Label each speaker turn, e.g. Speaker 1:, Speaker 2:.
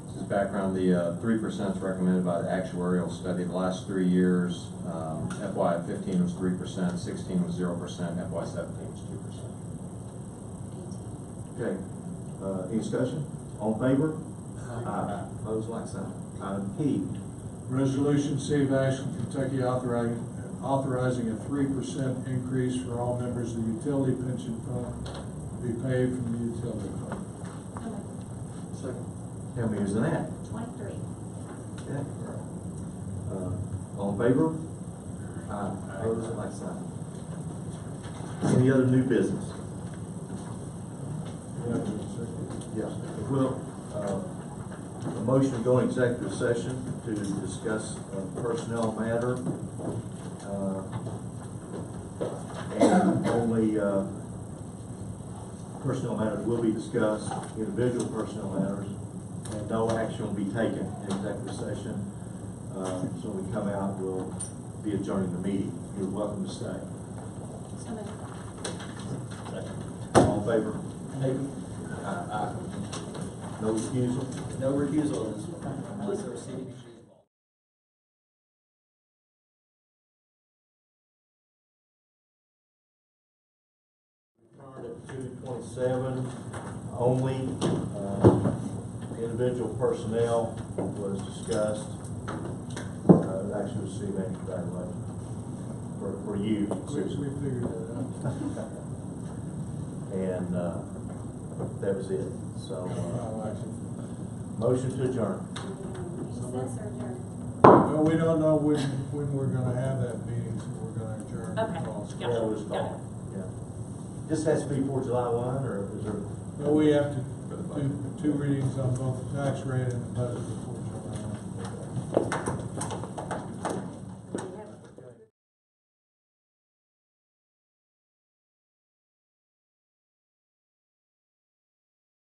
Speaker 1: background, the uh, three percent is recommended by the actuarial study. The last three years, um, FY fifteen was three percent, sixteen was zero percent, FY seventeen was two percent.
Speaker 2: Okay, uh, any discussion? All in favor? Aye. Pose like sign. Item P,
Speaker 3: Resolution City of Ashland, Kentucky authorizing, authorizing a three percent increase for all members of the utility pension fund to be paid from the utility fund.
Speaker 4: So moved.
Speaker 2: how many is in that?
Speaker 4: Twenty-three.
Speaker 2: Okay. Uh, All in favor? Aye. Pose like sign. Any other new business? Yeah. Well, uh, a motion to go in executive session to discuss a personnel matter. uh, And only, uh, personnel matters will be discussed, individual personnel matters, and no action will be taken in executive session. Uh, So when we come out, we'll be adjourning the meeting. You're welcome to stay.
Speaker 4: So moved.
Speaker 2: All in favor? Aye, aye. No refusal?
Speaker 5: No refusal on this one, unless there are city issues involved.
Speaker 2: Card at two twenty-seven only, uh, individual personnel was discussed. Uh, actually, was city manager evaluation for, for you.
Speaker 3: We, we figured that out.
Speaker 2: And, uh, that was it, so, uh,
Speaker 3: Well, actually,
Speaker 2: motion to adjourn.
Speaker 4: Recess or adjourn?
Speaker 3: No, we don't know when, when we're gonna have that meeting, so we're gonna adjourn. the
Speaker 4: Okay.
Speaker 3: calls.
Speaker 4: Got it,
Speaker 2: That was
Speaker 4: got it.
Speaker 2: called, yeah. This has to be before July one, or is there?
Speaker 3: No, we have to do two readings on both the tax rate and the budget before July.